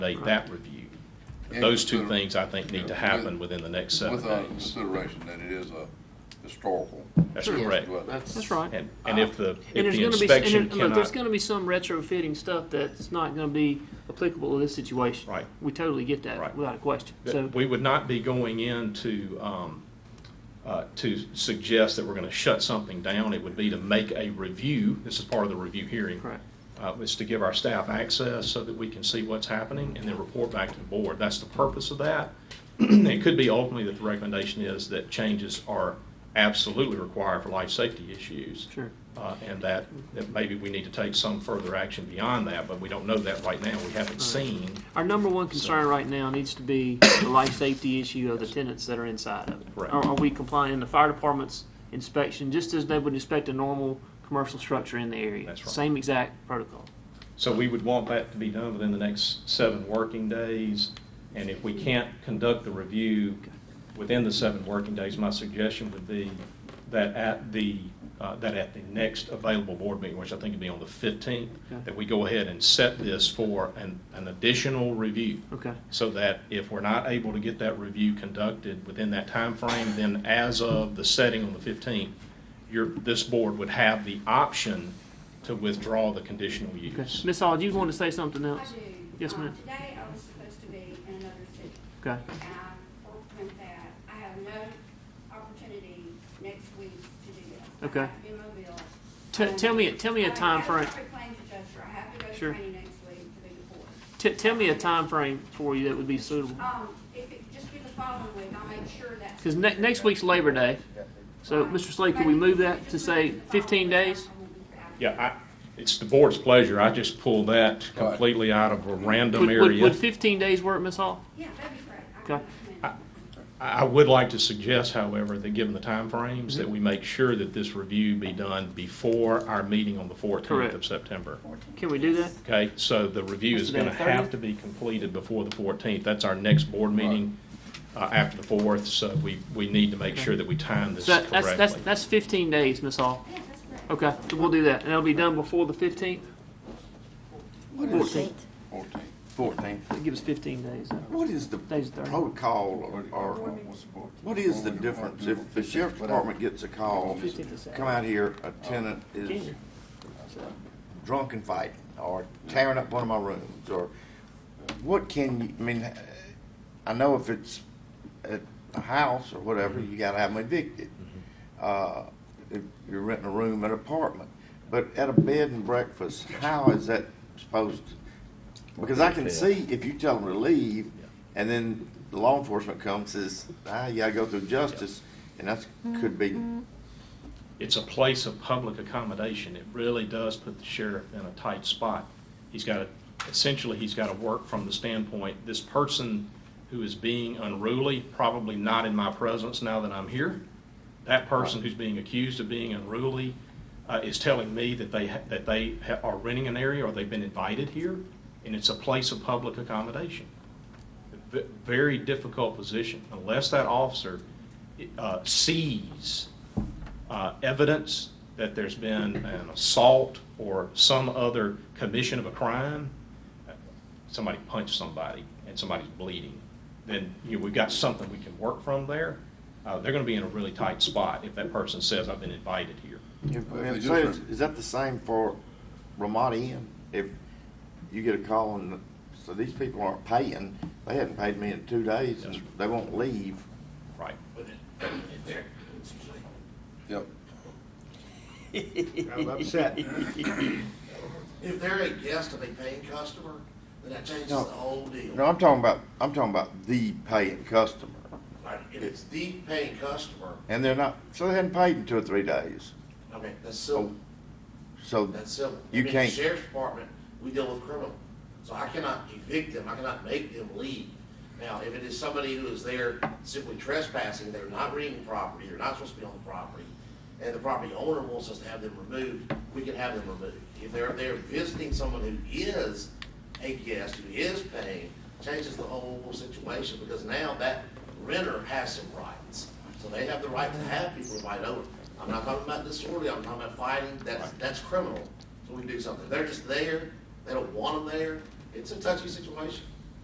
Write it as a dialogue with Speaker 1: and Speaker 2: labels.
Speaker 1: coordinate that review.
Speaker 2: And
Speaker 1: Those two
Speaker 2: consider-
Speaker 1: things, I think, need to
Speaker 2: yeah,
Speaker 1: happen
Speaker 2: with-
Speaker 1: within the next seven
Speaker 2: With
Speaker 3: uh,
Speaker 2: a
Speaker 1: days.
Speaker 2: consideration that it is a historical.
Speaker 1: That's
Speaker 3: Sure.
Speaker 1: correct.
Speaker 2: dwelling.
Speaker 3: That's right.
Speaker 1: And, and if the,
Speaker 3: And
Speaker 1: if
Speaker 3: there's
Speaker 1: the
Speaker 3: gonna be, s-
Speaker 1: inspection
Speaker 3: and there- look, there's
Speaker 1: cannot,
Speaker 3: gonna be some retrofitting stuff that's not gonna be applicable to this situation.
Speaker 1: Right.
Speaker 3: We totally get
Speaker 1: Right.
Speaker 3: that, without a question. So,
Speaker 1: we would not be going in to, um, uh, to suggest that we're gonna shut something down. It would be to make a review, this is part of the review hearing.
Speaker 3: correct.
Speaker 1: Uh, is to give our staff access so that we can see what's happening and then report back to the board. That's the purpose of that. It could be ultimately that the recommendation is that changes are absolutely required for life safety issues.
Speaker 3: Sure.
Speaker 1: Uh, and that, that maybe we need to take some further action beyond that, but we don't know that right now. We haven't seen.
Speaker 3: Our number one concern right now needs to be the life safety issue of the tenants that are inside of it.
Speaker 1: Correct.
Speaker 3: Are, are we complying, the fire department's inspection, just as they would inspect a normal commercial structure in the area?
Speaker 1: That's right.
Speaker 3: Same exact protocol.
Speaker 1: So we would want that to be done within the next seven working days. And if we can't conduct the review within the seven working days, my suggestion would be that at the, uh, that at the next available board meeting, which I think would be on the 15th,
Speaker 3: Okay.
Speaker 1: that we go ahead and set this for an, an additional review.
Speaker 3: Okay.
Speaker 1: So that if we're not able to get that review conducted within that time frame, then as of the setting on the 15th, your, this board would have the option to withdraw the conditional
Speaker 3: Okay.
Speaker 1: use.
Speaker 3: Ms. Hall, do you want to say something
Speaker 4: I
Speaker 3: else?
Speaker 4: do.
Speaker 3: Yes,
Speaker 4: Um,
Speaker 3: ma'am.
Speaker 4: Today I was supposed to be in another city.
Speaker 3: Okay.
Speaker 4: And I worked with that. I have no opportunity next week to do that.
Speaker 3: Okay.
Speaker 4: I have to be in Mobile.
Speaker 3: T-
Speaker 4: Um,
Speaker 3: tell me, tell me
Speaker 4: I
Speaker 3: a
Speaker 4: have
Speaker 3: time
Speaker 4: a
Speaker 3: frame.
Speaker 4: property claims adjuster. I have to go to
Speaker 3: Sure.
Speaker 4: training next week to be deported.
Speaker 3: T- tell me a time frame for you that would be suitable.
Speaker 4: Um, if it could just be the following week, I'll make sure that.
Speaker 3: Because ne- next week's Labor Day. So, Mr. Slade, could we move that to say 15 days?
Speaker 1: Yeah, I, it's the board's pleasure. I just pulled that completely out of a random
Speaker 3: Would- Would, would
Speaker 1: area.
Speaker 3: 15 days work, Ms. Hall?
Speaker 4: Yeah, that'd be great. I
Speaker 3: Okay.
Speaker 4: can-
Speaker 1: I- I would like to suggest, however, that given the timeframes, that we make sure that this review be done before our meeting on the fourteenth of
Speaker 3: Correct.
Speaker 1: September.
Speaker 3: Can we do that?
Speaker 1: Okay, so the review
Speaker 3: What's
Speaker 1: is
Speaker 3: the
Speaker 1: gonna
Speaker 3: date, 30th?
Speaker 1: have to be completed before the fourteenth. That's our next board meeting, uh, after the fourth, so we, we need to make sure that we time this
Speaker 3: So that, that's, that's,
Speaker 1: correctly.
Speaker 3: that's 15 days, Ms. Hall.
Speaker 4: Yeah, that's great.
Speaker 3: Okay, so we'll do that. And it'll be done before the 15th? 14th.
Speaker 2: Fourteen.
Speaker 5: Fourteen.
Speaker 3: That gives 15 days.
Speaker 5: What is the
Speaker 3: Days of the-
Speaker 5: protocol or, or what is the difference if the sheriff's department gets a call, come out here, a tenant is drunk and fighting or tearing up one of my rooms or what can you, I mean, I know if it's at a house or whatever, you gotta have them evicted. Uh, if you're renting a room at an apartment, but at a bed and breakfast, how is that supposed to? Because I can see if you tell them to leave, and then the law enforcement comes and says, ah, you gotta go through justice, and that's, could be,
Speaker 1: It's a place of public accommodation. It really does put the sheriff in a tight spot. He's got to, essentially, he's got to work from the standpoint, this person who is being unruly, probably not in my presence now that I'm here. That person who's being accused of being unruly uh, is telling me that they, ha- that they ha- are renting an area or they've been invited here, and it's a place of public accommodation v- very difficult position unless that officer uh, sees uh, evidence that there's been an assault or some other commission of a crime, somebody punched somebody and somebody's bleeding, then, you know, we've got something we can work from there. Uh, They're going to be in a really tight spot if that person says, I've been invited here.
Speaker 5: if-
Speaker 2: Well, if they
Speaker 5: if- say,
Speaker 2: just-
Speaker 5: is that the same for Ramada Inn? If you get a call and, so these people aren't paying, they hadn't paid me in two days, and they won't leave,
Speaker 1: Right.
Speaker 2: Yep.
Speaker 6: I'm upset.
Speaker 7: If they're a guest of a paying customer, then that changes the
Speaker 5: No.
Speaker 7: whole deal.
Speaker 5: No, I'm talking about, I'm talking about the paying customer,
Speaker 7: Right, If it's the paying customer,
Speaker 5: and they're not, so they hadn't paid in two or three days,
Speaker 7: okay, that's civil,
Speaker 5: so
Speaker 7: that's civil. I
Speaker 5: you
Speaker 7: mean,
Speaker 5: can't.
Speaker 7: the Sheriff's Department, we deal with criminal, so I cannot evict them, I cannot make them leave. Now, if it is somebody who is there simply trespassing, they're not renting property, they're not supposed to be on the property, and the property owner wants us to have them removed, we can have them removed. If they're there visiting someone who is a guest, who is paying, changes the whole situation, because now that renter has some rights. So they have the right to have people invite over. I'm not talking about disorderly, I'm talking about fighting, that's, that's criminal, so we can do something. They're just there, they don't want them there, it's a touchy situation.